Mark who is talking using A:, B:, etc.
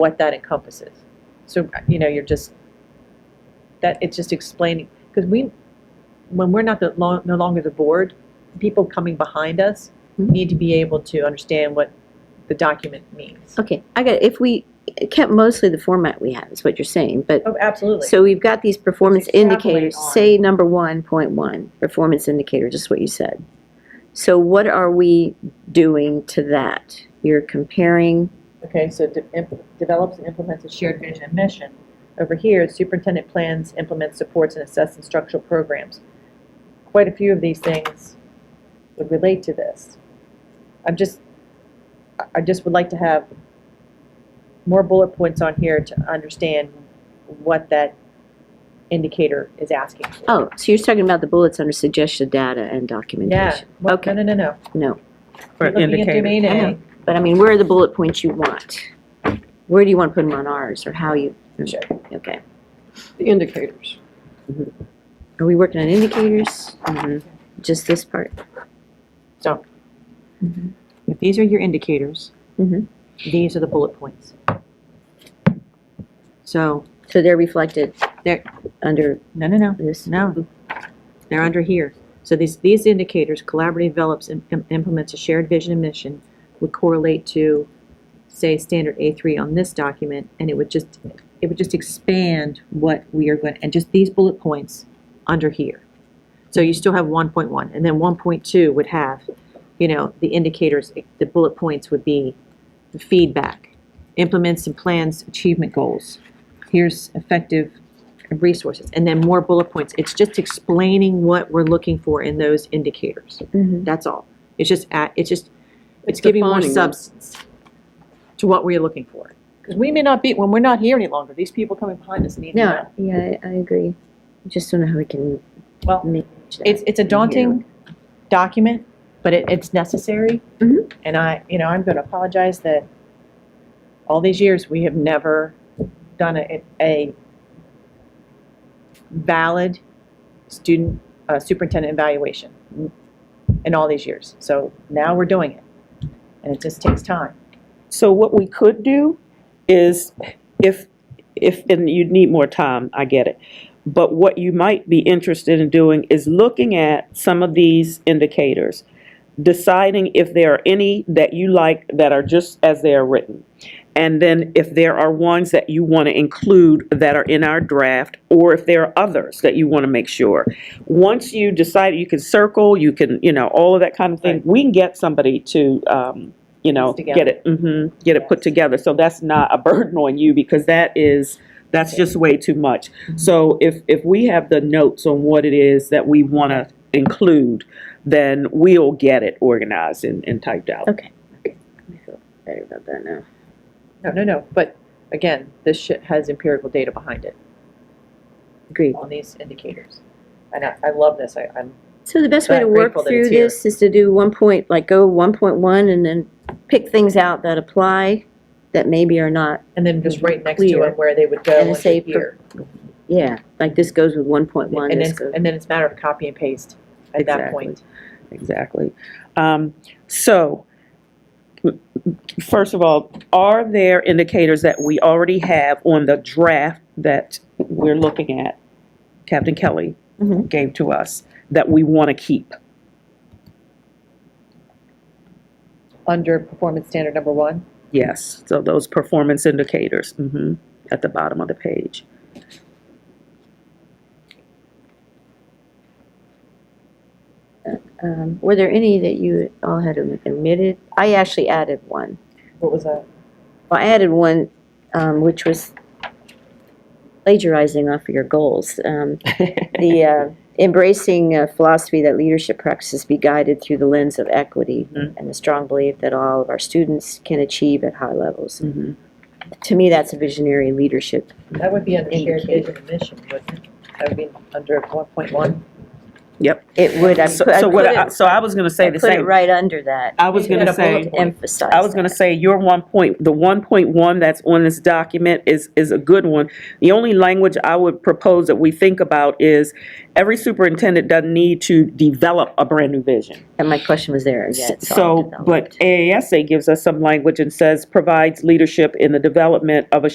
A: what that encompasses. So, you know, you're just, that, it's just explaining, because we, when we're not the, lo- no longer the board, people coming behind us
B: Mhm.
A: need to be able to understand what the document means.
B: Okay, I got, it. if we kept mostly the format we have, is what you're saying, but,
A: Oh, absolutely.
B: so we've got these performance
A: Extrapolate
B: indicators,
A: on.
B: say number one point one, performance indicator, just what you said. So what are we doing to that? You're comparing,
A: Okay, so de- imp- develops and implements a shared vision and mission. Over here, superintendent plans, implements, supports, and assess instructional programs. Quite a few of these things would relate to this. I'm just, I- I just would like to have more bullet points on here to understand what that indicator is asking for.
B: oh, so you're talking about the bullets under suggested data and
A: Yeah,
B: documentation?
A: well, no,
B: Okay,
A: no, no, no.
B: no,
C: Or
A: You're looking at
C: indicator.
A: domain
B: I
A: A.
B: know, but I mean, where are the bullet points you want? Where do you want to put them on ours, or how you?
A: Sure.
B: Okay,
D: The
B: Mm-hmm.
D: indicators.
B: are we working on indicators? Mm-hmm. Just this part?
C: If these are your indicators,
B: Mhm.
C: these are the bullet points. So,
B: So they're reflected
C: They're-
B: under
C: no, no, no,
B: this?
C: no. They're under here. So these, these indicators, collaborative develops and im- implements a shared vision and mission would correlate to, say, standard A3 on this document, and it would just, it would just expand what we are going, and just these bullet points under here. So you still have 1.1, and then 1.2 would have, you know, the indicators, the bullet points would be the feedback, implements and plans achievement goals. Here's effective resources, and then more bullet points. It's just explaining what we're looking for in those indicators.
A: Mm-hmm.
B: Mhm.
C: That's all. It's just, at- it's just, it's
D: It's
C: giving more
D: defining them.
C: substance to what we're looking for.
A: Because we may not be, when we're not here any longer, these people coming behind us need to know.
B: No, yeah, I I agree. I Just don't know how we can
A: Well,
B: manage that.
A: it's, it's a daunting document, but it, it's necessary.
B: Mhm.
A: And I, you know, I'm going to apologize that all these years, we have never done a, a valid student uh, superintendent evaluation in all these years. So now we're doing it, and it just takes time.
E: So what we could do is if, if, and you'd need more time, I get it. But what you might be interested in doing is looking at some of these indicators, deciding if there are any that you like that are just as they are written. And then if there are ones that you want to include that are in our draft, or if there are others that you want to make sure. Once you decide, you can circle, you can, you know, all of that kind of thing,
A: Right.
E: we can get somebody to, um, you know,
A: Put together.
E: get it, hmm get it put together. So that's not a burden on you because that is, that's just way too much.
A: Mm-hmm.
E: So if, if we have the notes on what it is that we want to include, then we'll get it organized and, and typed out.
B: I feel Better about that now.
A: No, no, no, but again, this shit has empirical data behind it
B: Agreed.
A: on these indicators. And I, I love this, I, I'm
B: So the best way to
A: But
B: work
A: grateful that it's
B: through this is to do one point, like go one point one and then pick things out that apply that maybe are not,
A: And then just right next to
B: Clear.
A: it where they would go
B: And
A: and
B: say
A: say here.
B: yeah, like this goes with one point one,
A: And
B: this
A: then,
B: goes.
A: and then it's a matter of copy and paste at that
E: Exactly.
A: point.
E: Exactly. Um, so, first of all, are there indicators that we already have on the draft that we're looking at, Captain Kelly
B: Mhm.
E: gave to us, that we want to keep?
A: Under performance standard number one,
E: Yes, so those performance indicators, mhm, at the bottom of the page.
B: Um, Were there any that you all had omitted? I actually added one.
A: what was that?
B: Well, I added one, um, which was plagiarizing off of your goals. Um, the uh, embracing a philosophy that leadership practices be guided through the lens of equity
E: Mhm.
B: and the strong belief that all of our students can achieve at high levels.
E: Mhm.
B: To me, that's a visionary leadership.
A: That would be under shared
B: Indicate.
A: vision and mission, wouldn't it? That would be under one point one.
E: Yep.
B: It would, I
E: So,
B: put, I
E: so
B: put
E: what, I-
B: it,
E: so I was gonna say
B: I
E: the
B: put it
E: same.
B: right under that.
E: I was gonna say,
B: To emphasize
E: I was gonna
B: that.
E: say, your one point, the one point one that's on this document is, is a good one. The only language I would propose that we think about is, every superintendent doesn't need to develop a brand-new vision.
B: And my question was there again.
E: So, but AASA gives us some language and says, provides leadership in the development of a